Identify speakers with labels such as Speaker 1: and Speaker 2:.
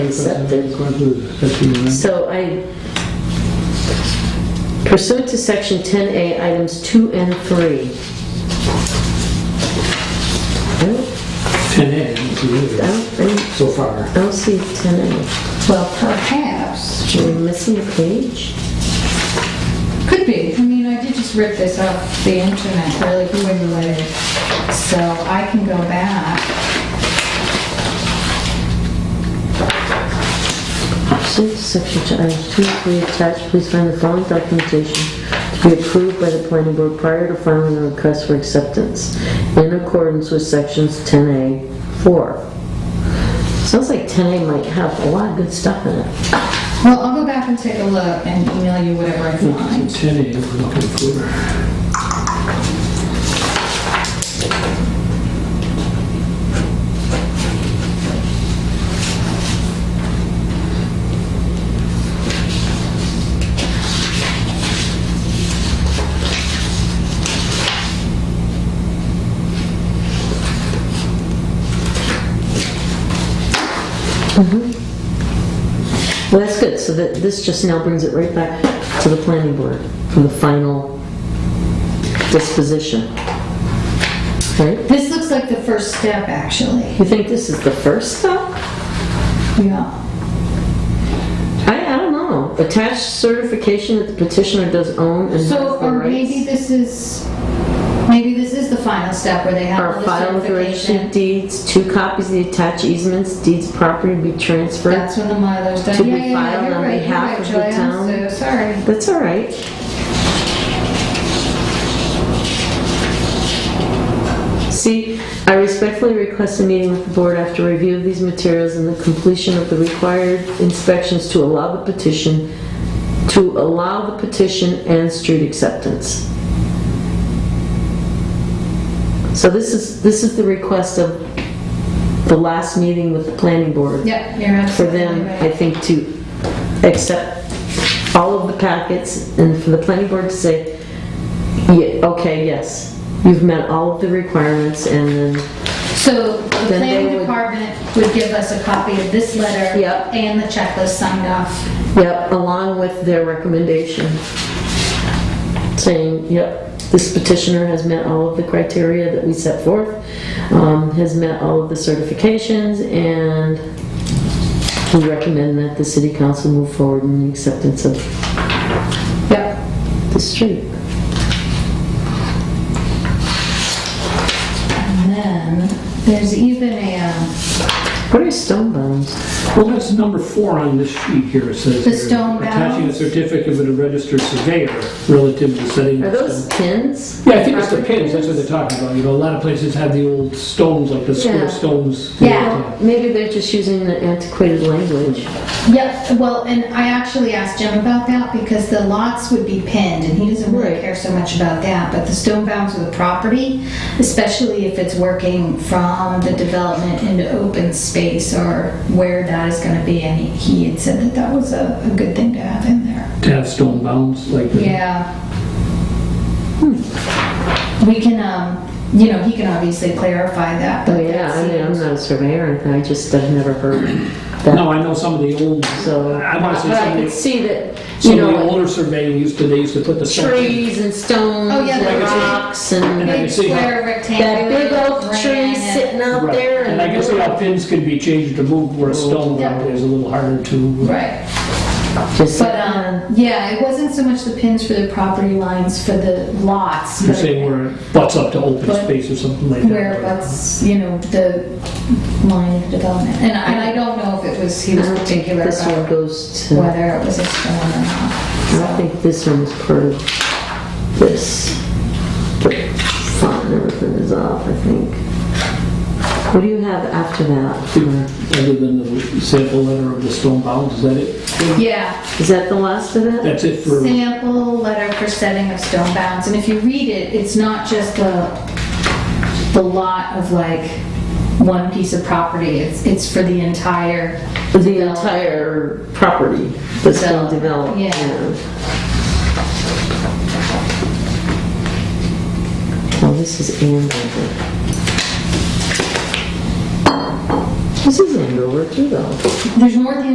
Speaker 1: accepted.
Speaker 2: According to the 15 amendment.
Speaker 1: So I, pursuant to section 10A, items 2 and 3. I don't-
Speaker 2: 10A, I don't see it
Speaker 1: I
Speaker 2: either,
Speaker 1: don't, think-
Speaker 2: so far.
Speaker 1: I don't see 10A.
Speaker 3: Well, perhaps,
Speaker 1: Are we missing a page?
Speaker 3: could be, I mean, I did just rip this off the internet really quickly, so I can go back.
Speaker 1: Pursuant to section 10, items 2 and 3 attached, please find the following documentation to be approved by the planning board prior to filing a request for acceptance in accordance with sections 10A, 4. Sounds like 10A might have a lot of good stuff in it.
Speaker 3: Well, I'll go back and take a look and email you whatever I find.
Speaker 2: 10A, we're looking for.
Speaker 1: Well, that's good, so that, this just now brings it right back to the planning board for the final disposition. Right?
Speaker 3: This looks like the first step, actually.
Speaker 1: You think this is the first step?
Speaker 3: Yeah.
Speaker 1: I, I don't know. Attached certification that the petitioner does own and has
Speaker 3: So,
Speaker 1: the
Speaker 3: or maybe
Speaker 1: rights.
Speaker 3: this is, maybe this is the final step where they have all
Speaker 1: Are
Speaker 3: the
Speaker 1: filed with the registry of
Speaker 3: certification.
Speaker 1: deeds, two copies of the attached easements, deeds of property be transferred.
Speaker 3: That's when the Mylar's done.
Speaker 1: To be
Speaker 3: Yeah, yeah, yeah,
Speaker 1: filed
Speaker 3: you're
Speaker 1: on
Speaker 3: right, you're
Speaker 1: behalf
Speaker 3: right,
Speaker 1: of the
Speaker 3: Joy, I'm
Speaker 1: town.
Speaker 3: so Sorry.
Speaker 1: That's all right. See, I respectfully request a meeting with the board after review of these materials and the completion of the required inspections to allow the petition, to allow the petition and street acceptance. So this is, this is the request of the last meeting with the planning board
Speaker 3: Yep, you're
Speaker 1: for
Speaker 3: absolutely
Speaker 1: them, I
Speaker 3: right.
Speaker 1: think, to accept all of the packets and for the planning board to say, "Ye- okay, yes, you've met all of the requirements and then,
Speaker 3: So the
Speaker 1: Then they
Speaker 3: planning
Speaker 1: would-
Speaker 3: department would give us a copy of this letter.
Speaker 1: Yep.
Speaker 3: And the checklist signed off.
Speaker 1: yep, along with their recommendation, saying, yep, this petitioner has met all of the criteria that we set forth, um, has met all of the certifications, and we recommend that the city council move forward in the acceptance of
Speaker 3: Yep.
Speaker 1: the street.
Speaker 3: And then there's even a, um,
Speaker 1: What are stone bones?
Speaker 2: Well, that's number four on this sheet here, it says.
Speaker 3: The
Speaker 2: here,
Speaker 3: stone
Speaker 2: Attaching a
Speaker 3: bounds.
Speaker 2: certificate of a registered surveyor relative to setting.
Speaker 1: Are
Speaker 2: of
Speaker 1: those
Speaker 2: stone-
Speaker 1: pins?
Speaker 2: Yeah, I think it's the pins, that's what they're talking about, you know, a lot of places have the old stones, like the
Speaker 1: Yeah.
Speaker 2: square stones.
Speaker 3: Yeah.
Speaker 1: Maybe they're just using the antiquated language.
Speaker 3: Yep, well, and I actually asked Jim about that because the lots would be pinned and he doesn't really
Speaker 1: Right.
Speaker 3: care so much about that, but the stone bounds of the property, especially if it's working from the development into open space or where that is gonna be, and he he had said that that was a, a good thing to have in there.
Speaker 2: To have stone bounds, like. the-
Speaker 3: Yeah. We can, um, you know, he can obviously clarify that,
Speaker 1: Oh
Speaker 3: but
Speaker 1: yeah,
Speaker 3: that
Speaker 1: I mean, I'm
Speaker 3: seems-
Speaker 1: not a surveyor, and I just have never heard that,
Speaker 2: No, I know some of the old,
Speaker 1: so.
Speaker 2: I want to say
Speaker 1: But
Speaker 2: some
Speaker 1: I
Speaker 2: of
Speaker 1: could
Speaker 2: the,
Speaker 1: see that, you
Speaker 2: some of the
Speaker 1: know,
Speaker 2: older surveying used to, they used to put the. stone-
Speaker 1: trees and stones
Speaker 3: Oh, yeah,
Speaker 1: and
Speaker 3: the-
Speaker 1: rocks and
Speaker 2: I can
Speaker 3: Big
Speaker 2: see how-
Speaker 3: square
Speaker 1: that
Speaker 3: rectangular.
Speaker 1: big oak tree
Speaker 3: granite.
Speaker 1: sitting out
Speaker 2: Right.
Speaker 1: there
Speaker 2: And I can see how
Speaker 1: and.
Speaker 2: pins could be changed to move where a stone bound is a little harder to.
Speaker 3: Right.
Speaker 1: Just-
Speaker 3: But, um, yeah, it wasn't so much the pins for the property lines for the lots,
Speaker 2: You're
Speaker 3: but
Speaker 2: saying uh, where it butts up to open
Speaker 3: But-
Speaker 2: space or something like that.
Speaker 3: where that's, you know, the line of development. And I, and I don't know if it was, he
Speaker 1: I
Speaker 3: was
Speaker 1: don't think
Speaker 3: particular
Speaker 1: this one
Speaker 3: about
Speaker 1: goes to, I
Speaker 3: whether it was a stone or
Speaker 1: don't
Speaker 3: not. So,
Speaker 1: think this one is part of this. But font, and everything is off, I think. What do you have after that?
Speaker 2: Other than the sample letter of the stone bounds, is that it?
Speaker 3: Yeah,
Speaker 1: Is that the last of it?
Speaker 2: That's it for,
Speaker 3: sample letter for setting of stone bounds. And if you read it, it's not just the, the lot of like one piece of property. It's, it's for the entire.
Speaker 1: The entire property that's been
Speaker 3: Develop,
Speaker 1: developed.
Speaker 3: yeah.
Speaker 1: Oh, this is Ann. I think.
Speaker 4: This is Andover too, though.
Speaker 1: There's more than